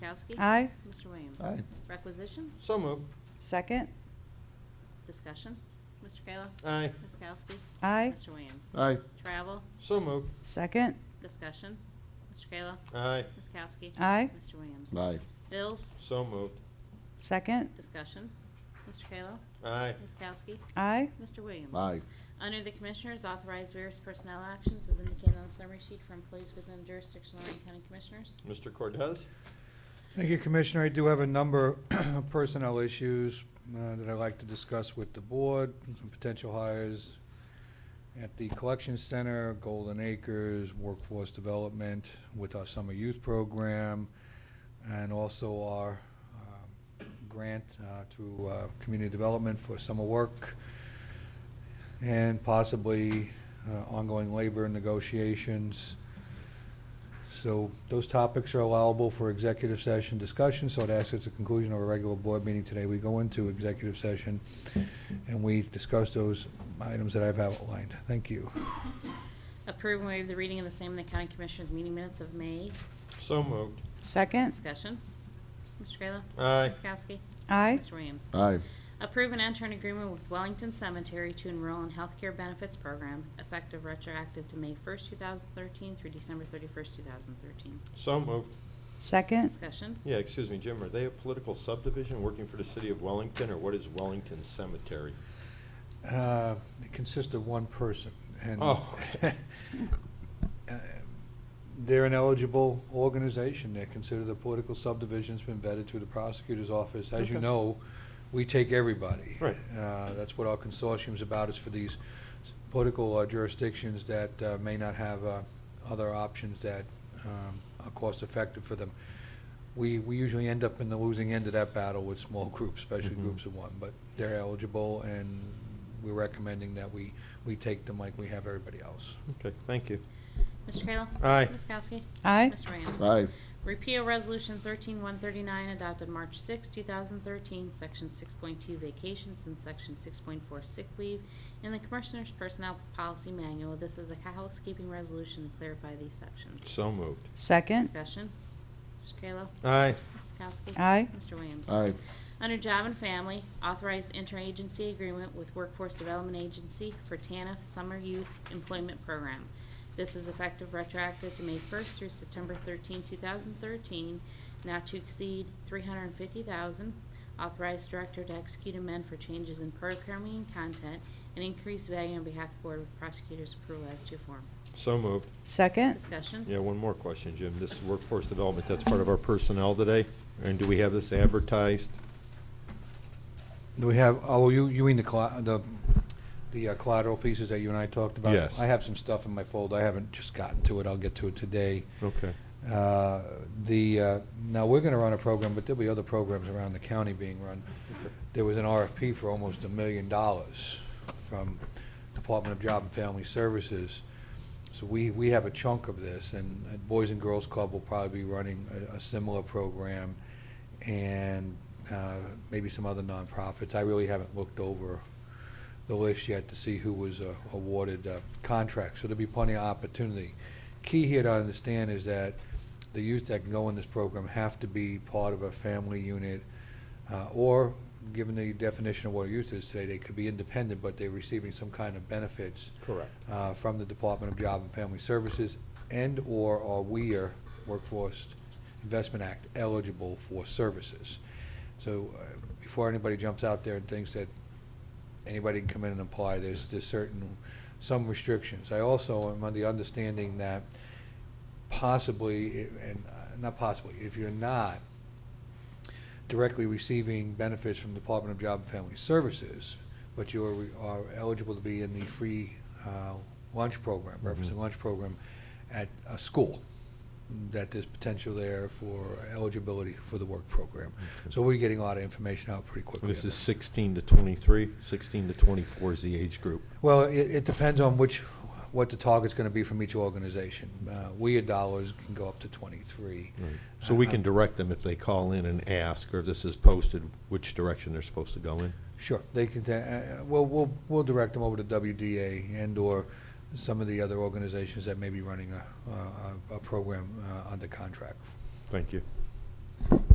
Kowski? Aye. Mr. Williams? Aye. Requisitions? So moved. Second. Discussion. Mr. Kayla? Aye. Ms. Kowski? Aye. Mr. Williams? Aye. Travel? So moved. Second. Discussion. Mr. Kayla? Aye. Ms. Kowski? Aye. Mr. Williams? Aye. Bills? So moved. Second. Discussion. Mr. Kayla? Aye. Ms. Kowski? Aye. Mr. Williams? Aye. Under the Commissioners, authorize various personnel actions as indicated on the summary sheet for employees within jurisdiction of Lorraine County Commissioners. Mr. Cortez? Thank you, Commissioner. I do have a number of personnel issues uh, that I'd like to discuss with the board, some potential hires at the Collection Center, Golden Acres, Workforce Development, with our Summer Youth Program, and also our um, grant uh, through uh, Community Development for summer work, and possibly uh, ongoing labor negotiations. So those topics are allowable for executive session discussion, so I'd ask at the conclusion of a regular board meeting today, we go into executive session and we discuss those items that I've outlined. Thank you. Approve and waive the reading of the same in the County Commissioners' meeting minutes of May. So moved. Second. Discussion. Mr. Kayla? Aye. Ms. Kowski? Aye. Mr. Williams? Aye. Approve and enter an agreement with Wellington Cemetery to enroll in healthcare benefits program effective retroactive to May 1st, 2013 through December 31st, 2013. So moved. Second. Discussion. Yeah, excuse me, Jim, are they a political subdivision working for the city of Wellington, or what is Wellington Cemetery? Uh, It consists of one person. and Oh, okay. uh, They're an eligible organization. They're considered a political subdivision. It's been vetted through the prosecutor's office. As you Okay. know, we take everybody. Right. Uh, That's what our consortium's about, is for these political uh, jurisdictions that uh, may not have uh, other options that um, are cost-effective for them. We, we usually end up in the losing end of that battle with small groups, especially Mhm. groups of one, but they're eligible, and we're recommending that we, we take them like we have everybody else. Okay, thank you. Mr. Kayla? Aye. Ms. Kowski? Aye. Mr. Williams? Aye. Repeal Resolution 13139 adopted March 6, 2013, Section 6.2 vacations and Section 6.4 sick leave in the Commissioners' Personnel Policy Manual. This is a housekeeping resolution to clarify these sections. So moved. Second. Discussion. Mr. Kayla? Aye. Ms. Kowski? Aye. Mr. Williams? Aye. Under Job and Family, authorize interagency agreement with Workforce Development Agency for TANF Summer Youth Employment Program. This is effective retroactive to May 1st through September 13, 2013, not to exceed 350000 Authorize director to execute amend for changes in programming and content and increase value on behalf of the board with prosecutor's approval as to form. So moved. Second. Discussion? Yeah, one more question, Jim. This is workforce development, that's part of our personnel today? And do we have this advertised? Do we have, oh, you, you mean the colla- the, the uh, collateral pieces that you and I talked about? Yes. I have some stuff in my folder. I haven't just gotten to it. I'll get to it today. Okay. Uh, The, uh, now, we're going to run a program, but there'll be other programs around the county being run. There was an RFP for almost a million dollars from Department of Job and Family Services. So we, we have a chunk of this, and uh, Boys and Girls Club will probably be running a- a similar program, and uh, maybe some other nonprofits. I really haven't looked over the list yet to see who was uh, awarded uh, contracts, so there'll be plenty of opportunity. Key here to understand is that the youth that can go in this program have to be part of a family unit, uh, or, given the definition of what youth is today, they could be independent, but they're receiving some kind of benefits Correct. uh, from the Department of Job and Family Services and/or are we are Workforce Investment Act eligible for services. So uh, before anybody jumps out there and thinks that anybody can come in and apply, there's, there's certain, some restrictions. I also am under the understanding that possibly, and uh, not possibly, if you're not directly receiving benefits from Department of Job and Family Services, but you are- are eligible to be in the free uh, lunch program, Mm-hmm. breakfast and lunch program at a school, that there's potential there for eligibility for the work program. So we're getting a lot of information out pretty quickly. This on is that. 16 to 23, 16 to 24 is the age group. Well, it, it depends on which, what the target's going to be from each organization. Uh, We at dollars can go up to 23. So we can direct them if they call in and ask, or if this is posted, which direction they're supposed to go in? Sure, they can, ta- uh, uh, we'll, we'll, we'll direct them over to WDA and/or some of the other organizations that may be running a, a- a, a program uh, under contract. Thank you.